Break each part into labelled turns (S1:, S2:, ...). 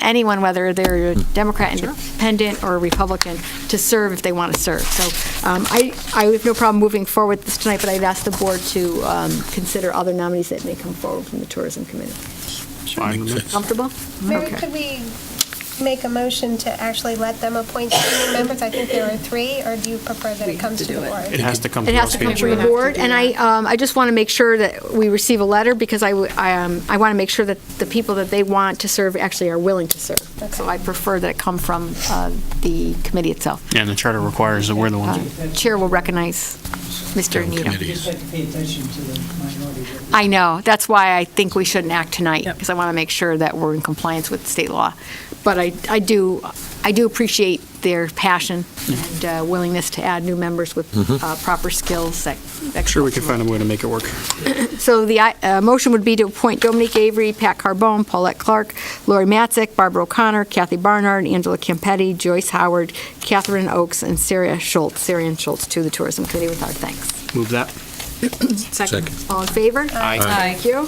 S1: anyone, whether they're a Democrat, independent, or Republican, to serve if they want to serve. So um, I, I have no problem moving forward with this tonight, but I'd ask the board to um, consider other nominees that may come forward from the Tourism Committee.
S2: Fine with me.
S1: Comfortable?
S3: Mary,
S1: Okay.
S3: could we make a motion to actually let them appoint three new members? I think there are three, or do you prefer that it comes to the
S2: It
S3: board?
S2: has to come
S1: It
S2: to
S1: has
S2: us.
S1: to come
S2: each
S1: from the
S2: other.
S1: board, and I, um, I just want to make sure that we receive a letter, because I, w- I, um, I want to make sure that the people that they want to serve actually are willing to serve. So
S3: Okay.
S1: I prefer that it come from uh, the committee itself.
S2: Yeah, and the charter requires that we're the
S1: Uh,
S2: ones.
S1: Chair will recognize Mr. Needham.
S4: You just have to pay attention to the minority.
S1: I know, that's why I think we shouldn't act tonight,
S4: Yep.
S1: because I want to make sure that we're in compliance with state law. But I, I do, I do appreciate their passion and uh, willingness to add new members with uh, proper skills that. that
S2: Sure, we
S1: come
S2: can find a way to make it work.
S1: so the uh, motion would be to appoint Dominique Avery, Pat Carbone, Paulette Clark, Lori Matzik, Barbara O'Connor, Kathy Barnard, Angela Campetti, Joyce Howard, Catherine Oakes, and Sarah Schultz, Syrian Schultz, to the Tourism Committee with our thanks.
S2: Move that.
S5: Second.
S1: All in favor?
S2: Aye.
S1: Thank you.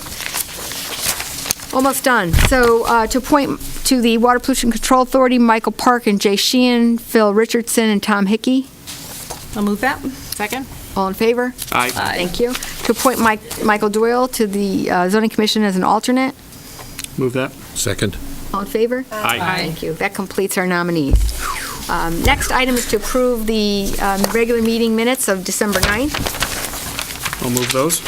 S1: Almost done. So uh, to appoint to the Water Pollution Control Authority, Michael Park and Jay Sheehan, Phil Richardson, and Tom Hickey.
S5: I'll move that. Second.
S1: All in favor?
S2: Aye.
S5: Aye.
S1: Thank you. To appoint Mike, Michael Doyle to the uh, zoning commission as an alternate.
S2: Move that.
S5: Second.
S1: All in favor?
S2: Aye.
S1: Thank you. That completes our nominees. Um, Next item is to approve the um, regular meeting minutes of December 9th.
S2: I'll move those.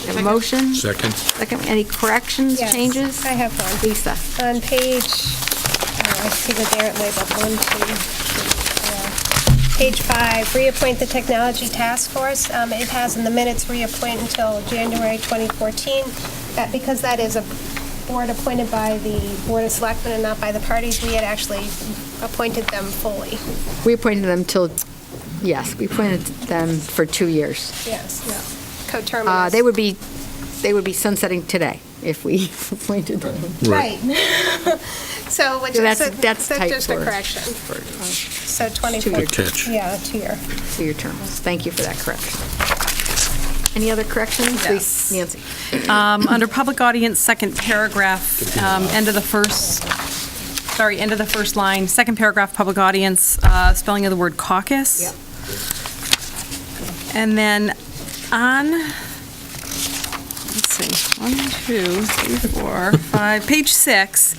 S1: We have a Motion,
S5: Second.
S1: second, any corrections,
S3: Yes,
S1: changes?
S3: I have one.
S1: Lisa,
S3: On page, oh, I see that they're labeled one, two, three, four. Page five, reappoint the technology task force. Um, It has in the minutes reappoint until January 2014. That, because that is a board appointed by the Board of Selectmen and not by the parties, we had actually appointed them fully.
S1: we appointed them till, yes, we appointed them for two years.
S3: Yes, no.
S1: Uh,
S3: Coterminous.
S1: They would be, they would be sunsetting today if we appointed them.
S3: Right. So, which
S1: So
S3: is,
S1: that's-
S3: so
S1: that's
S3: that's
S1: tight
S3: just a
S1: for-
S3: correction.
S1: for, uh,
S3: So
S1: Good
S3: 24.
S5: catch.
S3: Yeah, two-year.
S1: for your terms. Thank you for that correction. Any other corrections?
S6: Yes.
S1: Nancy?
S6: Um, Under public audience, second paragraph, um, end of the first, sorry, end of the first line, second paragraph, public audience, uh, spelling of the word caucus.
S1: Yep.
S6: And then on, let's see, one, two, three, four, five, page six,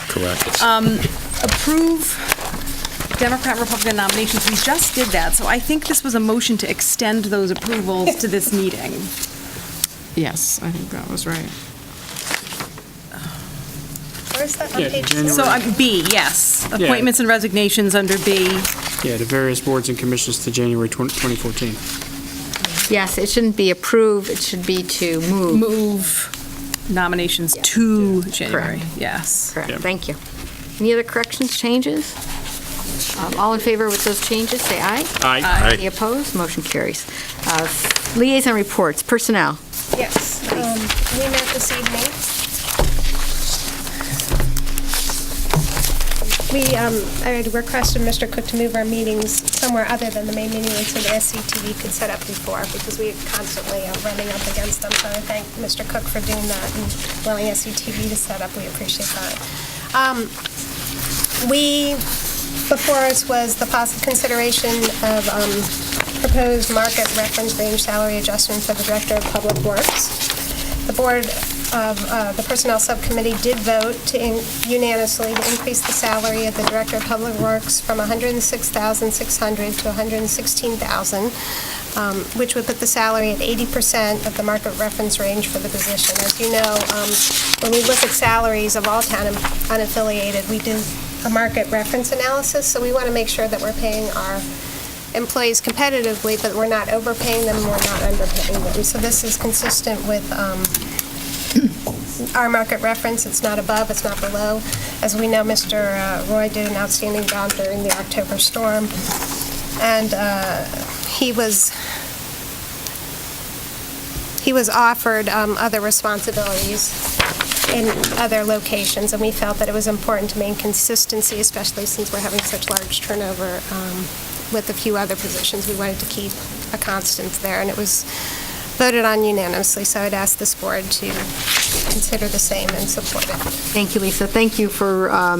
S6: um,
S5: Correct.
S6: approve Democrat, Republican nominations. We just did that, so I think this was a motion to extend those approvals to this meeting.
S7: Yes, I think that was right.
S3: Where's that on
S2: Yeah,
S3: page?
S2: January.
S6: So um, B, yes, appointments and resignations under B.
S2: Yeah, to various boards and commissions to January 20- 2014.
S1: Yes, it shouldn't be approve, it should be to move.
S6: move nominations to January. Yes.
S1: Correct,
S2: Yeah.
S1: thank you. Any other corrections, changes? Um, All in favor with those changes, say aye.
S6: Uh,
S2: Aye.
S1: Any opposed? Motion carries. Uh, Liaison reports, personnel.
S3: Yes. um, We met this evening. We, um, I had requested Mr. Cook to move our meetings somewhere other than the main meeting room so that SCTV could set up before, because we constantly are running up against them. So I thank Mr. Cook for doing that and allowing SCTV to set up. We appreciate that. Um, We before us was the possible consideration of um, proposed market reference range salary adjustment for the Director of Public Works. The Board of, uh, the Personnel Subcommittee did vote to in- unanimously to increase the salary of the Director of Public Works from $106,600 to $116,000, um, which would put the salary at 80% of the market reference range for the position. As you know, um, when we look at salaries of all town unaffiliated, we do a market reference analysis, so we want to make sure that we're paying our employees competitively, but we're not overpaying them, we're not underpaying them. So this is consistent with um, our market reference, it's not above, it's not below. As we know, Mr. uh, Roy did an outstanding job during the October storm, and uh, he was he was offered um, other responsibilities in other locations, and we felt that it was important to maintain consistency, especially since we're having such large turnover um, with a few other positions. We wanted to keep a constant there, and it was voted on unanimously, so I'd ask this board to consider the same and support it.
S1: Thank you, Lisa. Thank you for um,